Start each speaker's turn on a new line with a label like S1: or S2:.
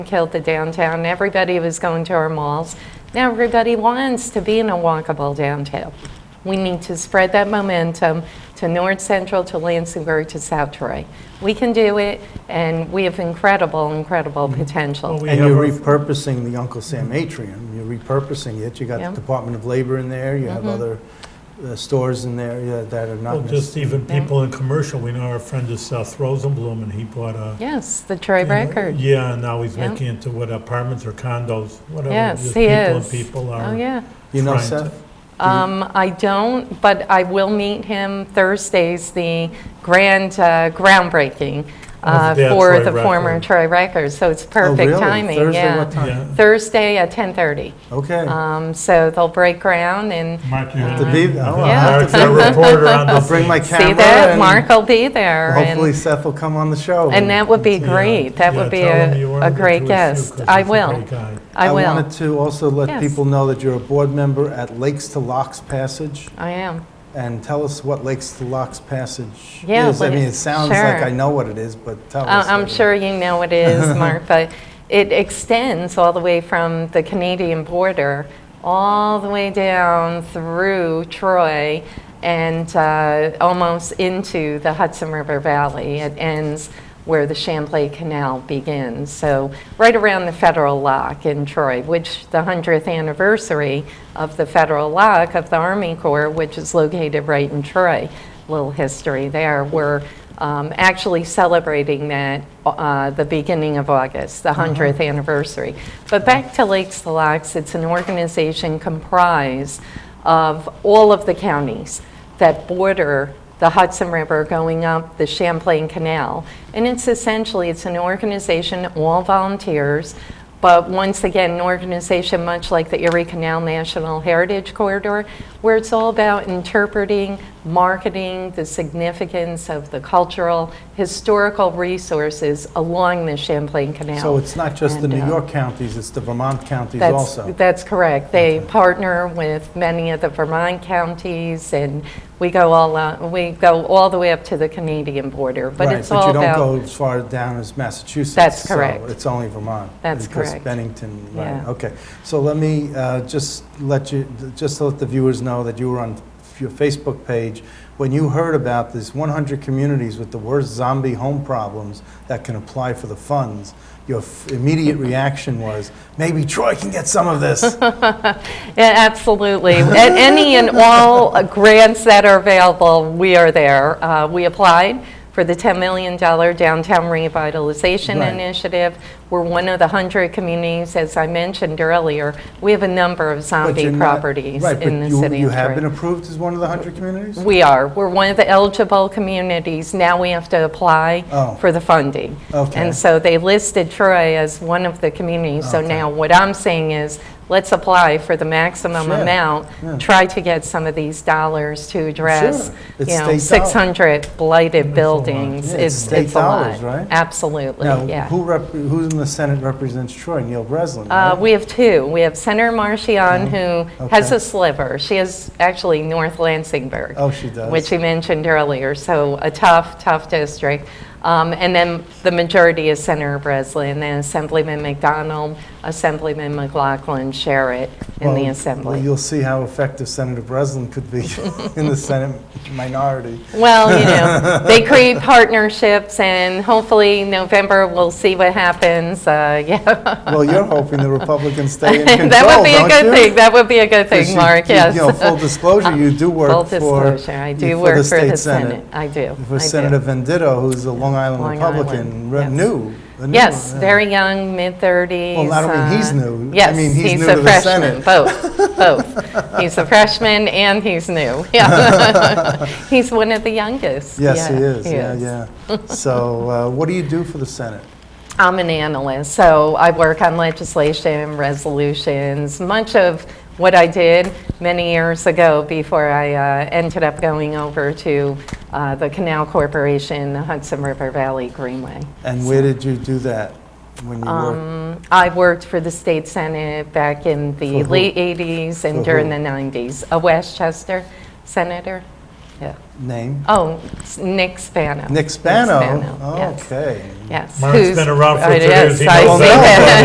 S1: killed the downtown. Everybody was going to our malls. Now everybody wants to be in a walkable downtown. We need to spread that momentum to North Central, to Lansingburg, to South Troy. We can do it, and we have incredible, incredible potential.
S2: Mm-hmm. We
S3: And
S2: have
S3: you're
S2: our-
S3: repurposing the Uncle Sam atrium, you're repurposing it, you got
S1: Yeah. Mm-hmm.
S3: the Department of Labor in there, you have other uh, stores in there yeah, that are
S2: Well,
S3: not,
S2: just
S3: necess-
S2: even people in commercial, we know our friend is Seth Rosenblum, and he bought a.
S1: Yes, the Troy record.
S2: Yeah, and now he's
S1: Yeah.
S2: making it to what apartments or condos, whatever.
S1: Yes,
S2: just
S1: he
S2: people
S1: is.
S2: And people are.
S1: Oh, yeah.
S3: you know
S2: trying to-
S3: Seth?
S2: Mm-hmm.
S1: Um, I don't, but I will meet him Thursday's the grand uh, groundbreaking uh,
S2: Of Oh, the
S1: for
S2: Troy
S1: the former
S2: record.
S1: Troy Records, so it's
S3: Oh,
S1: perfect
S3: really?
S1: timing.
S3: Thursday,
S1: yeah.
S3: what time?
S2: Yeah.
S1: Thursday at 10:30.
S3: Okay.
S1: Um, so they'll break ground and
S2: Mark, you
S3: Have to be- oh, I'll have
S2: Mark's
S3: to
S2: a
S3: bring-
S2: reporter on the.
S3: I'll bring my camera.
S1: see that
S3: and
S1: Mark will be there.
S3: Hopefully
S1: and,
S3: Seth will come on the show.
S1: and that would be
S2: Yeah,
S1: great. that
S2: yeah,
S1: would be
S2: tell him you
S1: a,
S2: wanted
S1: a
S2: to
S1: great
S2: do a few,
S1: guest.
S2: 'cause
S1: I
S2: he's a
S1: will.
S2: great guy.
S1: I will.
S3: wanted to also let
S1: Yes.
S3: people know that you're a board member at Lakes to Locks Passage,
S1: I am.
S3: and tell us what Lakes to Locks Passage
S1: Yeah,
S3: is. I
S1: what
S3: mean,
S1: it-
S3: it sounds like
S1: sure.
S3: I know what it is, but tell
S1: I-
S3: us.
S1: Uh, I'm
S3: what it
S1: sure
S3: is.
S1: you know it is, Mark, but it extends all the way from the Canadian border, all the way down through Troy and uh, almost into the Hudson River Valley. It ends where the Champlain Canal begins, so right around the Federal Lock in Troy, which the 100th anniversary of the Federal Lock of the Army Corps, which is located right in Troy. Little history there. We're um, actually celebrating that uh, the beginning of August, the 100th anniversary. But back to Lakes to Locks, it's an organization comprised of all of the counties that border the Hudson River going up the Champlain Canal. And it's essentially, it's an organization, all volunteers, but once again, an organization much like the Erie Canal National Heritage Corridor, where it's all about interpreting, marketing the significance of the cultural, historical resources along the Champlain Canal.
S3: So it's not just the
S1: And,
S3: New
S1: uh,
S3: York counties, it's the Vermont counties
S1: that's,
S3: also.
S1: That's correct. They partner with many of the Vermont counties, and we go all out, we go all the way up to the Canadian border. But
S3: Right,
S1: it's all
S3: But you
S1: about
S3: don't go as far down as Massachusetts.
S1: That's
S3: so
S1: correct.
S3: it's only Vermont.
S1: That's
S3: Because
S1: correct.
S3: Bennington, right,
S1: Yeah.
S3: okay. So let me uh, just let you, just to let the viewers know that you were on your Facebook page. When you heard about this 100 communities with the worst zombie home problems that can apply for the funds, your f- immediate reaction was, maybe Troy can get some of this.
S1: Yeah, absolutely. At any and all uh, grants that are available, we are there. Uh, we applied for the $10 million downtown revitalization
S3: Right.
S1: initiative. We're one of the 100 communities, as I mentioned earlier. We have a number of
S3: But
S1: zombie
S3: you're not-
S1: properties
S3: right, but
S1: in the
S3: you-
S1: city.
S3: You
S1: of
S3: have
S1: Troy.
S3: been approved as one of the 100 communities?
S1: We are. We're one of the eligible communities. Now we have to apply
S3: Oh.
S1: for the funding.
S3: Okay.
S1: And so they listed Troy as one of the communities. So
S3: Okay.
S1: now what I'm saying is, let's apply for the maximum
S3: Sure.
S1: amount.
S3: Yeah.
S1: Try to get some of these dollars to address,
S3: Sure.
S1: you
S3: It's
S1: know,
S3: state dollars.
S1: 600 blighted buildings.
S3: Yeah,
S1: It's
S3: it's state
S1: it's a lot.
S3: dollars, right?
S1: Absolutely,
S3: Now,
S1: yeah.
S3: who rep, who's in the Senate represents Troy? Neil Breslin,
S1: Uh,
S3: right?
S1: We have two. We have Senator Marchion, who has
S3: Okay.
S1: a sliver. She is actually North Lansingburg.
S3: Oh, she does.
S1: Which you mentioned earlier, so a tough, tough district. Um, And then the majority is Senator Breslin, then Assemblyman McDonald, Assemblyman McLaughlin, Sherritt in the
S3: Well, well,
S1: Assembly.
S3: You'll see how effective Senator Breslin could be in the Senate minority.
S1: Well, you know, they create partnerships, and hopefully November, we'll see what happens. Uh, Yeah,
S3: Well, you're hoping the Republicans stay in control,
S1: that would be a
S3: don't
S1: good
S3: you?
S1: thing. That would be a good
S3: 'Cause
S1: thing,
S3: you-
S1: Mark,
S3: you-
S1: yes.
S3: You know, full disclosure, you do work
S1: Full
S3: for.
S1: disclosure, I do
S3: you-
S1: work for
S3: state
S1: the Senate. I do, I
S3: For
S1: do.
S3: Senator Venditto, who's a Long Island
S1: Long Island,
S3: Republican, re-
S1: yes.
S3: new. a new
S1: Yes,
S3: one, yeah.
S1: very young, mid-thirties. uh,
S3: Well, I don't mean he's new. I
S1: Yes,
S3: mean, he's
S1: he's
S3: new
S1: a
S3: to the
S1: freshman.
S3: Senate.
S1: Both, both. He's a freshman and he's new. Yeah, he's one of the youngest.
S3: Yes, he
S1: Yeah,
S3: is, yeah, yeah. So uh, what do you do for the Senate?
S1: I'm an analyst, so I work on legislation, resolutions. Much of what I did many years ago before I uh, ended up going over to uh, the Canal Corporation, the Hudson River Valley Greenway.
S3: And where did you do that when you worked?
S1: Um, I worked for the state senate back in the
S3: For who?
S1: late 80s
S3: For
S1: and during
S3: who?
S1: the 90s. A Westchester senator? Yeah.
S3: name?
S1: Oh, s- Nick Spano.
S3: Nick Spano? Oh,
S1: Nick Spano, yes.
S3: Okay.
S1: Yes.
S2: Mark's
S1: who's-
S2: been around for
S1: Uh,
S2: two years,
S1: Yes,
S2: he
S1: I
S2: knows
S1: see
S3: that.
S1: that.